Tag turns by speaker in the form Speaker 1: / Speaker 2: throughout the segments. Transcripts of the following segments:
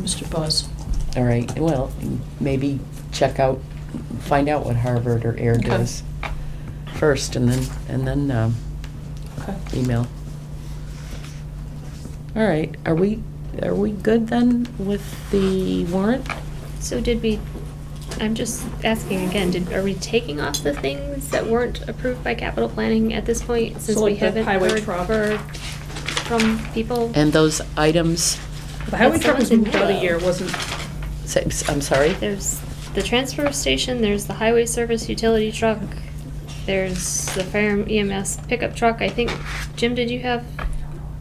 Speaker 1: Mr. Buzz.
Speaker 2: All right, well, maybe check out, find out what Harvard or Air
Speaker 1: Okay.
Speaker 2: does first, and then, and then um,
Speaker 1: Okay.
Speaker 2: email. All right, are we, are we good then with the warrant?
Speaker 3: So did we, I'm just asking again, did, are we taking off the things that weren't approved by capital planning at this point? Since
Speaker 1: So
Speaker 3: we
Speaker 1: like the
Speaker 3: haven't
Speaker 1: highway
Speaker 3: heard
Speaker 1: truck.
Speaker 3: heard from people?
Speaker 2: And those items,
Speaker 1: The highway
Speaker 3: That's
Speaker 1: truck was
Speaker 3: the one
Speaker 1: moved out a
Speaker 3: in
Speaker 1: year,
Speaker 3: yellow.
Speaker 1: wasn't,
Speaker 2: say- I'm sorry?
Speaker 3: There's the transfer station, there's the highway service utility truck, there's the fire EMS pickup truck. I think, Jim, did you have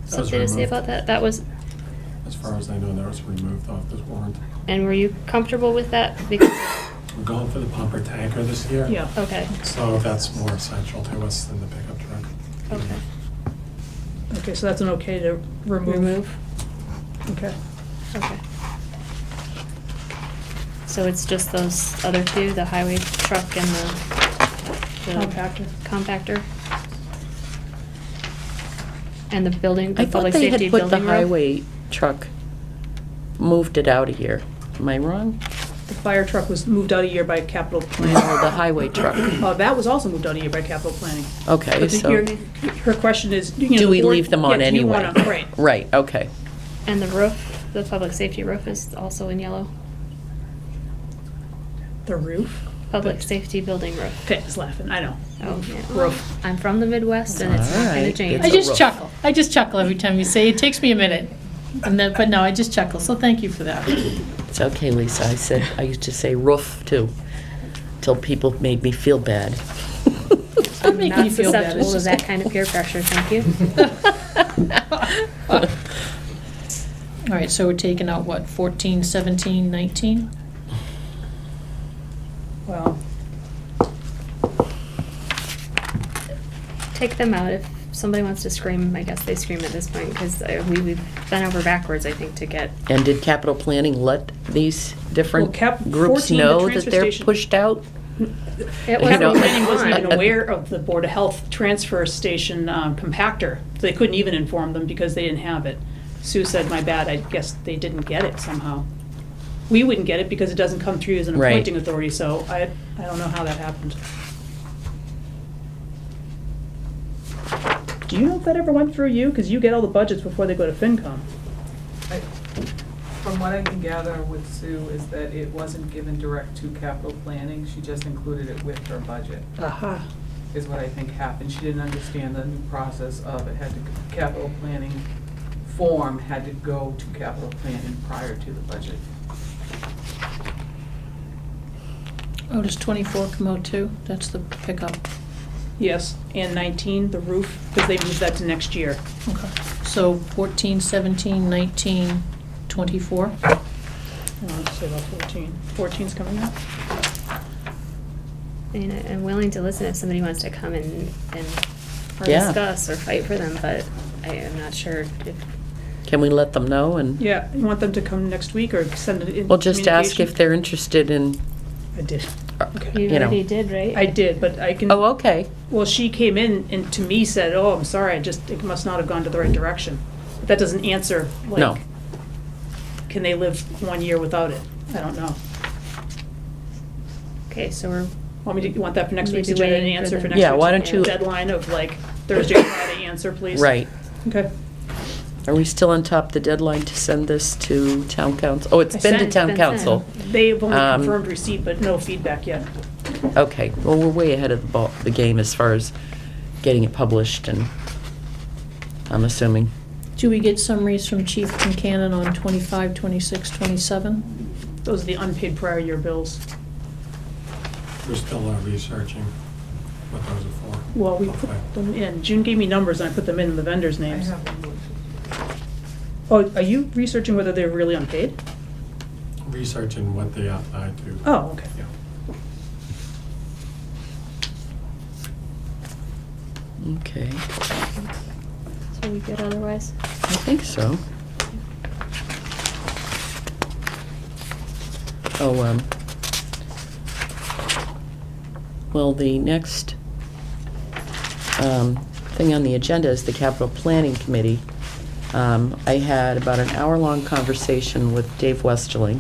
Speaker 3: something to say
Speaker 4: removed.
Speaker 3: about that? That was,
Speaker 4: As far as I know, that was removed off this warrant.
Speaker 3: and were you comfortable with that? Because,
Speaker 4: We're going for the pumper tanker this year.
Speaker 1: yeah.
Speaker 2: Oh.
Speaker 3: okay,
Speaker 4: So that's more essential to us than the pickup truck.
Speaker 3: okay.
Speaker 1: Okay, so that's an okay to remove?
Speaker 3: Remove?
Speaker 1: Okay.
Speaker 3: Okay. So it's just those other two, the highway truck and the. the
Speaker 1: Compactor.
Speaker 3: Compactor. And the building,
Speaker 2: I
Speaker 3: the
Speaker 2: thought
Speaker 3: public
Speaker 2: they
Speaker 3: safety
Speaker 2: had put the
Speaker 3: building road.
Speaker 2: highway truck, moved it out a year. Am I wrong?
Speaker 1: The fire truck was moved out a year by capital
Speaker 2: No,
Speaker 1: planning.
Speaker 2: the highway truck.
Speaker 1: Uh, that was also moved out a year by capital planning.
Speaker 2: Okay,
Speaker 1: But the-
Speaker 2: so,
Speaker 1: your- Her question is, you know.
Speaker 2: do
Speaker 1: the
Speaker 2: we
Speaker 1: board-
Speaker 2: leave them on
Speaker 1: yeah, do you
Speaker 2: anyway?
Speaker 1: wanna- Right.
Speaker 2: Right, okay.
Speaker 3: And the roof, the public safety roof is also in yellow.
Speaker 1: The roof?
Speaker 3: Public safety building roof.
Speaker 1: Pitt is laughing, I know.
Speaker 3: Oh, yeah.
Speaker 1: Roof.
Speaker 3: I'm from the Midwest and it's not gonna
Speaker 2: Alright,
Speaker 3: change.
Speaker 2: it's
Speaker 5: I
Speaker 2: a
Speaker 5: just
Speaker 2: rough-
Speaker 5: chuckle. I just chuckle every time you say, it takes me a minute. And then, but no, I just chuckle, so thank you for that.
Speaker 2: It's okay, Lisa. I said, I used to say roof too, till people made me feel bad.
Speaker 5: Don't make
Speaker 3: Not
Speaker 5: me feel bad.
Speaker 3: susceptible
Speaker 5: It's
Speaker 3: to
Speaker 5: just-
Speaker 3: that kind of peer pressure, thank you.
Speaker 5: All right, so we're taking out what, 14, 17, 19?
Speaker 1: Well,
Speaker 3: take them out if somebody wants to scream i guess they scream at this point because we, we've bent over backwards i think to get
Speaker 2: And did capital planning let these different
Speaker 1: Well, cap-
Speaker 2: groups
Speaker 1: 14, the
Speaker 2: know that
Speaker 1: transfer
Speaker 2: they're
Speaker 1: station-
Speaker 2: pushed out?
Speaker 3: it
Speaker 2: You
Speaker 1: capital
Speaker 2: know-
Speaker 1: planning wasn't even
Speaker 2: Uh, uh,
Speaker 1: aware of the Board of Health transfer station um, compactor. So They couldn't even inform them because they didn't have it. Sue said, my bad, I guess they didn't get it somehow. We wouldn't get it because it doesn't come through as an
Speaker 2: Right.
Speaker 1: appointing authority, so I, I don't know how that happened. Do you know if that ever went through you? Because you get all the budgets before they go to FinCom.
Speaker 6: I- From what I can gather with Sue is that it wasn't given direct to capital planning, she just included it with her budget,
Speaker 1: Aha.
Speaker 6: is what I think happened. She didn't understand the new process of it had to, capital planning form had to go to capital planning prior to the budget.
Speaker 5: Oh, does 24 come out too? That's the pickup.
Speaker 1: Yes, and 19, the roof, because they moved that to next year.
Speaker 5: Okay. So 14, 17, 19, 24?
Speaker 1: I want to say about 14. 14's coming up?
Speaker 3: i mean I- i'm willing to listen if somebody wants to come and and or
Speaker 2: Yeah.
Speaker 3: discuss or fight for them but i am not sure if
Speaker 2: Can we let them know and,
Speaker 1: Yeah, you want them to come next week or send it in?
Speaker 2: well, just ask if
Speaker 1: communication?
Speaker 2: they're interested in,
Speaker 1: I did. Okay.
Speaker 3: you,
Speaker 2: You know.
Speaker 3: already did right
Speaker 1: I did, but I can.
Speaker 2: oh, okay.
Speaker 1: Well, she came in and to me said, oh, I'm sorry, I just, it must not have gone to the right direction. But that doesn't answer, like.
Speaker 2: No.
Speaker 1: Can they live one year without it? I don't know.
Speaker 3: okay so we're
Speaker 1: Want me to, you want that for next week's
Speaker 3: Maybe
Speaker 1: agenda and
Speaker 3: waiting for
Speaker 1: answer for
Speaker 3: them.
Speaker 1: next week's?
Speaker 2: Yeah, why don't you-
Speaker 1: Deadline of like Thursday, Friday, answer, please?
Speaker 2: Right.
Speaker 1: Okay.
Speaker 2: Are we still on top of the deadline to send this to town council? Oh, it's
Speaker 1: I
Speaker 2: been to
Speaker 1: sent-
Speaker 2: town
Speaker 3: been sent.
Speaker 2: council.
Speaker 1: They've only
Speaker 2: Um,
Speaker 1: confirmed receipt, but no feedback yet.
Speaker 2: Okay, well, we're way ahead of the ball, the game as far as getting it published and, I'm assuming.
Speaker 5: Do we get summaries from Chief Concanon on 25, 26, 27?
Speaker 1: Those are the unpaid prior year bills.
Speaker 4: We're still uh, researching what those are for.
Speaker 1: Well, we
Speaker 4: Hopefully.
Speaker 1: put them in, June gave me numbers and I put them in the vendors'
Speaker 6: I
Speaker 1: names.
Speaker 6: have a motion.
Speaker 1: Oh, are you researching whether they're really unpaid?
Speaker 4: Researching what they apply to.
Speaker 1: Oh, okay.
Speaker 4: Yeah.
Speaker 2: Okay,
Speaker 3: so we good otherwise
Speaker 2: I think so. Oh, um, well, the next, um, thing on the agenda is the capital planning committee. Um, I had about an hour-long conversation with Dave Westerling,